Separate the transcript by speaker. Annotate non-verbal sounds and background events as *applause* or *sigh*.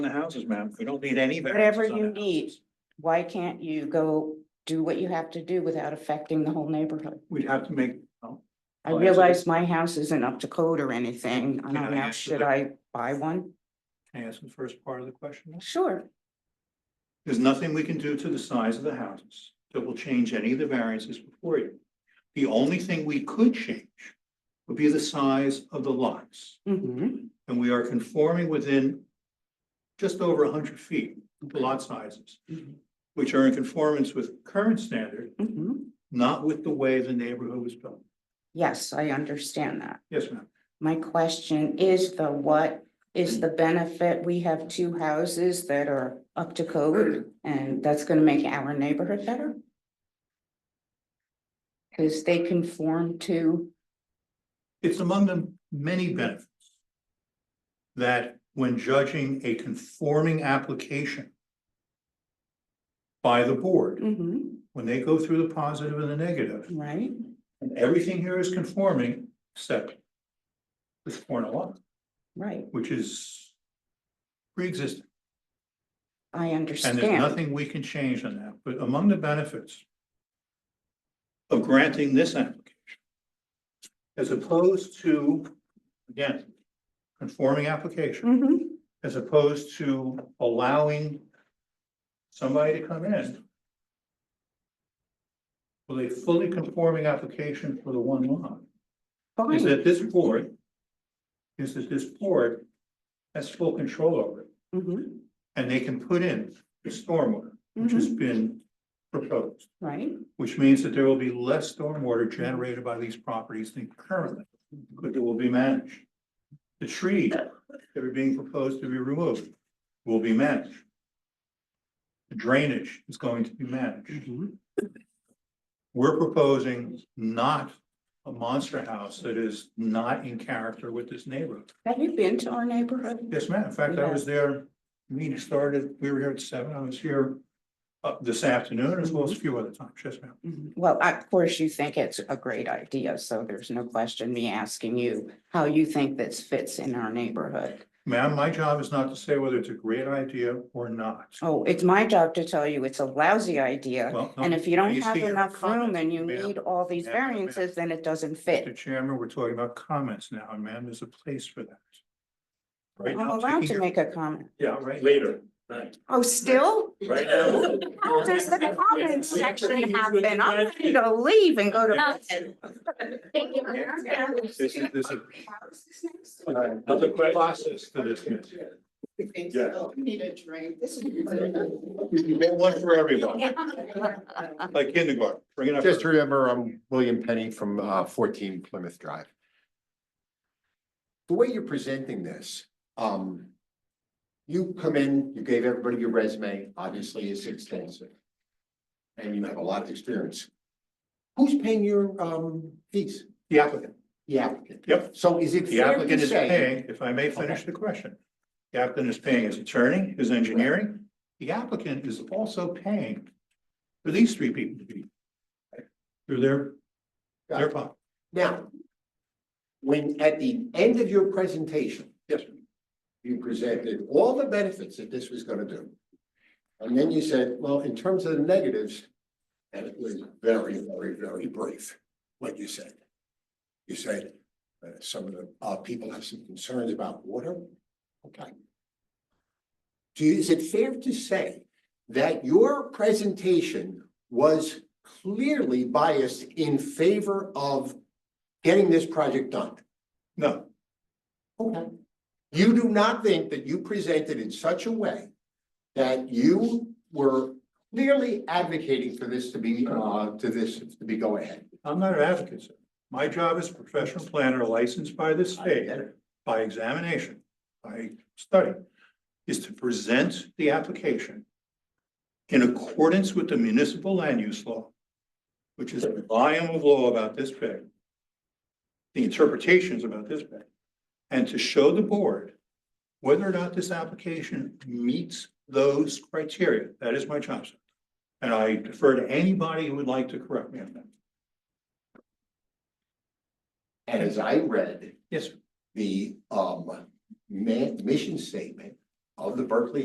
Speaker 1: the houses, ma'am. We don't need any. variances
Speaker 2: Whatever
Speaker 1: on
Speaker 2: you
Speaker 1: the
Speaker 2: need,
Speaker 1: houses.
Speaker 2: why can't you go do what you have to do without affecting the whole neighborhood?
Speaker 1: We'd have to make, oh,
Speaker 2: I
Speaker 1: Well, actually-
Speaker 2: realize my house isn't up to code or anything. I
Speaker 1: Can I
Speaker 2: don't know,
Speaker 1: answer
Speaker 2: should
Speaker 1: that?
Speaker 2: I buy one?
Speaker 1: can I ask the first part of the question?
Speaker 2: Sure,
Speaker 1: There's nothing we can do to the size of the houses that will change any of the variances before you. The only thing we could change would be the size of the lots.
Speaker 2: hmm
Speaker 1: And we are conforming within just over hundred feet, the lot sizes,
Speaker 2: Mhm.
Speaker 1: which are in conformance with current standard,
Speaker 2: hmm
Speaker 1: not with the way the neighborhood was built.
Speaker 2: yes, I understand that.
Speaker 1: Yes, ma'am.
Speaker 2: My question is the what is the benefit? We have two houses that are up to code and that's gonna make our neighborhood better? Cause they conform to,
Speaker 1: It's among the many benefits that when judging a conforming application by the board,
Speaker 2: Mhm,
Speaker 1: when they go through the positive and the negative,
Speaker 2: right?
Speaker 1: and everything here is conforming except this corner lot,
Speaker 2: Right,
Speaker 1: which is pre-existing.
Speaker 2: I
Speaker 1: And there's
Speaker 2: understand.
Speaker 1: nothing we can change on that, but among the benefits of granting this application, as opposed to, again, conforming application,
Speaker 2: Mhm,
Speaker 1: as opposed to allowing somebody to come in with a fully conforming application for the one lot, is
Speaker 2: Fine,
Speaker 1: that this board, is that this board has full control over it,
Speaker 2: mhm,
Speaker 1: and they can put in the stormwater which has
Speaker 2: mhm,
Speaker 1: been proposed,
Speaker 2: right,
Speaker 1: which means that there will be less stormwater generated by these properties than currently, but it will be managed. The trees that are being proposed to be removed will be managed. The Drainage is going to be managed.
Speaker 2: mhm,
Speaker 1: We're proposing not a monster house that is not in character with this neighborhood.
Speaker 2: Have you been to our neighborhood?
Speaker 1: Yes, ma'am. In fact, I was there, meeting started, we were here at seven, I was here uh, this afternoon as well as a few other times. Yes, ma'am.
Speaker 2: Mhm. Well, I- of course, you think it's a great idea, so there's no question me asking you how you think this fits in our neighborhood.
Speaker 1: Ma'am, my job is not to say whether it's a great idea or not.
Speaker 2: Oh, it's my job to tell you it's a lousy idea,
Speaker 1: Well, no,
Speaker 2: and if you don't
Speaker 1: you
Speaker 2: have
Speaker 1: see your
Speaker 2: enough room
Speaker 1: comments,
Speaker 2: and you
Speaker 1: ma'am.
Speaker 2: need all these
Speaker 1: Ma'am, ma'am.
Speaker 2: variances, then it doesn't
Speaker 1: Mr.
Speaker 2: fit.
Speaker 1: Chairman, we're talking about comments now, and ma'am, there's a place for that. Right
Speaker 2: I'm
Speaker 1: now,
Speaker 2: allowed
Speaker 1: taking
Speaker 2: to
Speaker 1: your-
Speaker 2: make a comment.
Speaker 1: Yeah, right.
Speaker 3: Later, right,
Speaker 2: Oh, still?
Speaker 3: right now.
Speaker 2: How does the comments section happen? I'm ready to leave and go to.
Speaker 1: This is, this is. uh,
Speaker 3: Other questions?
Speaker 1: Process to this.
Speaker 3: Yeah.
Speaker 4: Need a drink. This is.
Speaker 1: *laughs* You get one for everyone, like kindergarten, bring it up.
Speaker 5: Just remember, I'm William Penny from uh, fourteen Plymouth Drive. The way you're presenting this, um. You come in, you gave everybody your resume, obviously it's extensive. And you have a lot of experience. Who's paying your um fees?
Speaker 1: The applicant,
Speaker 5: The applicant.
Speaker 1: Yep.
Speaker 5: So is it
Speaker 1: the
Speaker 5: fair to
Speaker 1: applicant is
Speaker 5: say?
Speaker 1: paying, if I may finish the question. The applicant is paying his attorney, his engineering, the applicant is also paying for these three people to be. Through their, their pocket.
Speaker 5: Now. When at the end of your presentation,
Speaker 1: Yes,
Speaker 5: you presented all the benefits that this was gonna do. And then you said, well, in terms of the negatives, and it was very, very, very brief, what you said. You said, uh, some of the, uh, people have some concerns about water. Okay. Do you, is it fair to say that your presentation was clearly biased in favor of getting this project done?
Speaker 1: no,
Speaker 5: Okay. You do not think that you presented in such a way that you were clearly advocating for this to be, uh, to this, to be go ahead?
Speaker 1: I'm not an advocate, sir. My job as a professional planner licensed by the state, by examination, by study, is to present the application in accordance with the municipal land use law, which is a volume of law about this big, the interpretations about this big, and to show the board whether or not this application meets those criteria. That is my job, sir. And I defer to anybody who would like to correct me on that.
Speaker 5: And as I read
Speaker 1: Yes,
Speaker 5: the, um, ma- mission statement of the Berkeley